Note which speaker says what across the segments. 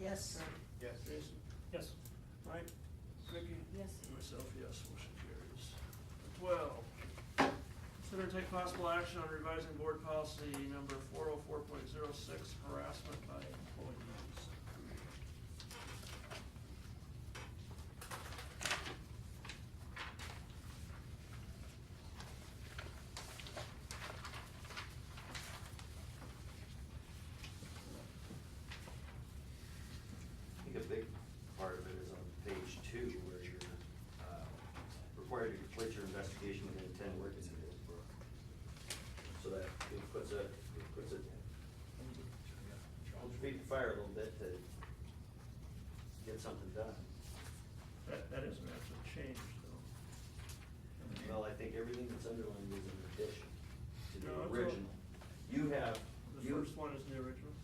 Speaker 1: Yes.
Speaker 2: Yes.
Speaker 1: Jason.
Speaker 3: Yes.
Speaker 4: Mike, Vicky?
Speaker 1: Yes.
Speaker 4: And Myself, yes, motion carries. Twelve, consider and take possible action on revising board policy number four oh four point zero six, harassment by employees.
Speaker 5: I think a big part of it is on page two, where you're uh, required to complete your investigation within ten working days. So that it puts a, it puts a, holds your feet to fire a little bit to get something done.
Speaker 4: That, that is an actual change, though.
Speaker 5: Well, I think everything that's underlined is an addition to
Speaker 4: No,
Speaker 5: the
Speaker 4: it's all-
Speaker 5: original. You have,
Speaker 4: The
Speaker 5: you,
Speaker 4: first one is the original.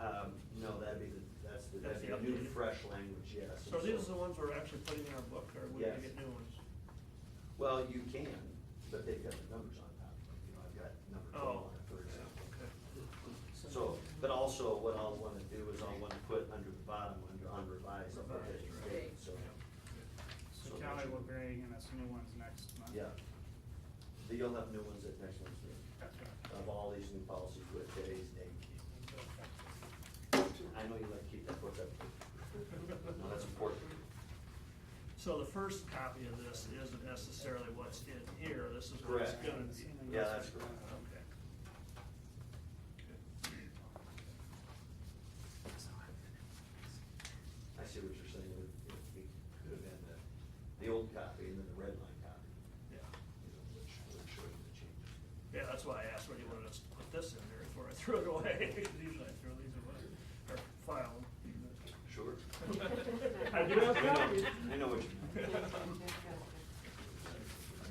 Speaker 5: um, no, that'd be the, that's the,
Speaker 4: That's
Speaker 5: that's
Speaker 4: the
Speaker 5: the new
Speaker 4: updated.
Speaker 5: fresh language, yes.
Speaker 4: So these are the ones we're actually putting in our book, or we're gonna
Speaker 5: Yes.
Speaker 4: get new ones?
Speaker 5: Well, you can, but they've got the numbers on top, you know, I've got number twelve
Speaker 4: Oh,
Speaker 5: on it, for example.
Speaker 4: okay.
Speaker 5: So, but also what I'll wanna do is I'll wanna put under the bottom, under unrevised, I'll put that in
Speaker 1: right.
Speaker 4: Revised,
Speaker 5: state, so. so
Speaker 3: So Callie
Speaker 5: that
Speaker 3: will
Speaker 5: you-
Speaker 3: be and us new ones next month.
Speaker 5: Yeah. But You'll have new ones at next one's meeting,
Speaker 3: That's right.
Speaker 5: of all these new policies with today's date. I know you like to keep that book up. No, that's important.
Speaker 4: So the first copy of this isn't necessarily what's in here, this is what's
Speaker 5: Correct.
Speaker 4: gonna be.
Speaker 5: Yeah, that's correct.
Speaker 4: Okay.
Speaker 5: I see what you're saying, it would be, could have been the, the old copy and then the red line copy,
Speaker 4: Yeah,
Speaker 5: you know, which would show you the changes.
Speaker 4: yeah, that's why I asked whether you wanted us to put this in there before I threw it away, 'cause usually I throw these away, or file them.
Speaker 5: Sure.
Speaker 4: I do have copies.
Speaker 5: I know what you mean.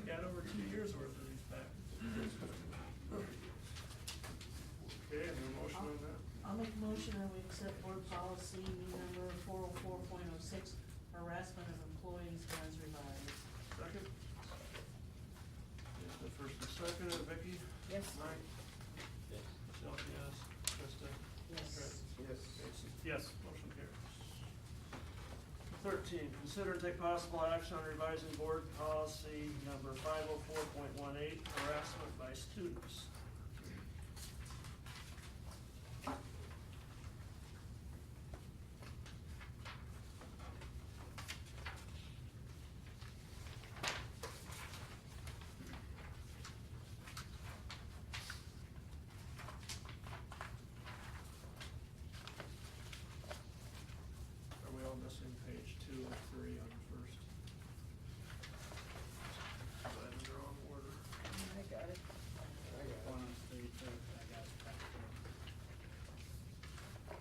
Speaker 4: I got over two years worth of these back. Okay, any motion on that?
Speaker 1: I'll make a motion that we accept board policy number four oh four point oh six, harassment of employees as revised.
Speaker 4: Second? Yes, the first and second, uh, Vicky?
Speaker 1: Yes.
Speaker 4: Mike? Myself, yes. Krista?
Speaker 1: Yes.
Speaker 2: Yes.
Speaker 4: Jason? Yes. Motion carries. Thirteen, consider and take possible action on revising board policy number five oh four point one eight, harassment by students. Are we all missing page two or three on the first? Is that in the wrong order?
Speaker 1: I got it.
Speaker 3: One on three, two, I got it back there.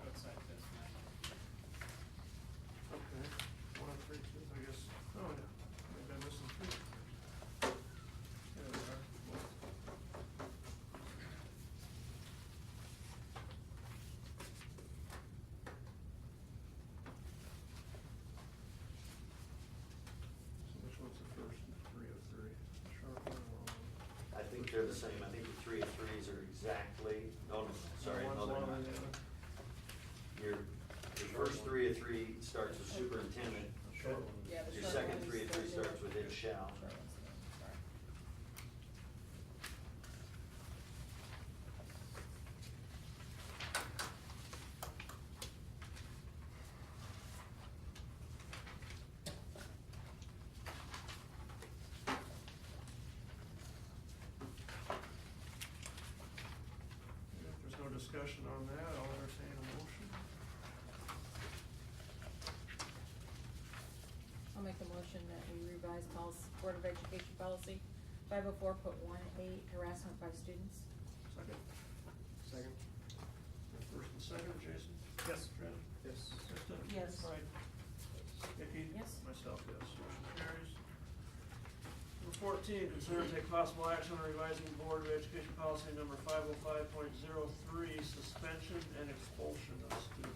Speaker 3: Looks like this now.
Speaker 4: Okay, one and three, two, I guess, oh yeah, maybe I'm missing three. There we are. So which one's the first, three of three? Sharp one or long one?
Speaker 5: I think they're the same, I think the three of threes are exactly, no, no, no, sorry,
Speaker 4: One's
Speaker 5: no, they're
Speaker 4: long
Speaker 5: not.
Speaker 4: and the other-
Speaker 5: Your, your first three of three starts with superintendent,
Speaker 4: Short one.
Speaker 6: Yeah, the
Speaker 5: your
Speaker 6: short
Speaker 5: second
Speaker 6: one
Speaker 5: three
Speaker 6: is
Speaker 5: of three
Speaker 6: the-
Speaker 5: starts with it shall.
Speaker 6: Short one's the- sorry.
Speaker 4: Yeah, If there's no discussion on that, I'll entertain a motion.
Speaker 6: I'll make the motion that we revise policy, Board of Education policy five oh four point one eight, harassment by students.
Speaker 4: Second? Second. First and second, Jason?
Speaker 3: Yes.
Speaker 4: Trent?
Speaker 2: Yes.
Speaker 4: Krista?
Speaker 1: Yes.
Speaker 4: Mike? Vicky?
Speaker 6: Yes.
Speaker 4: Myself, yes. Motion carries. Number fourteen, consider and take possible action on revising Board of Education policy number five oh five point zero three, suspension and expulsion of students.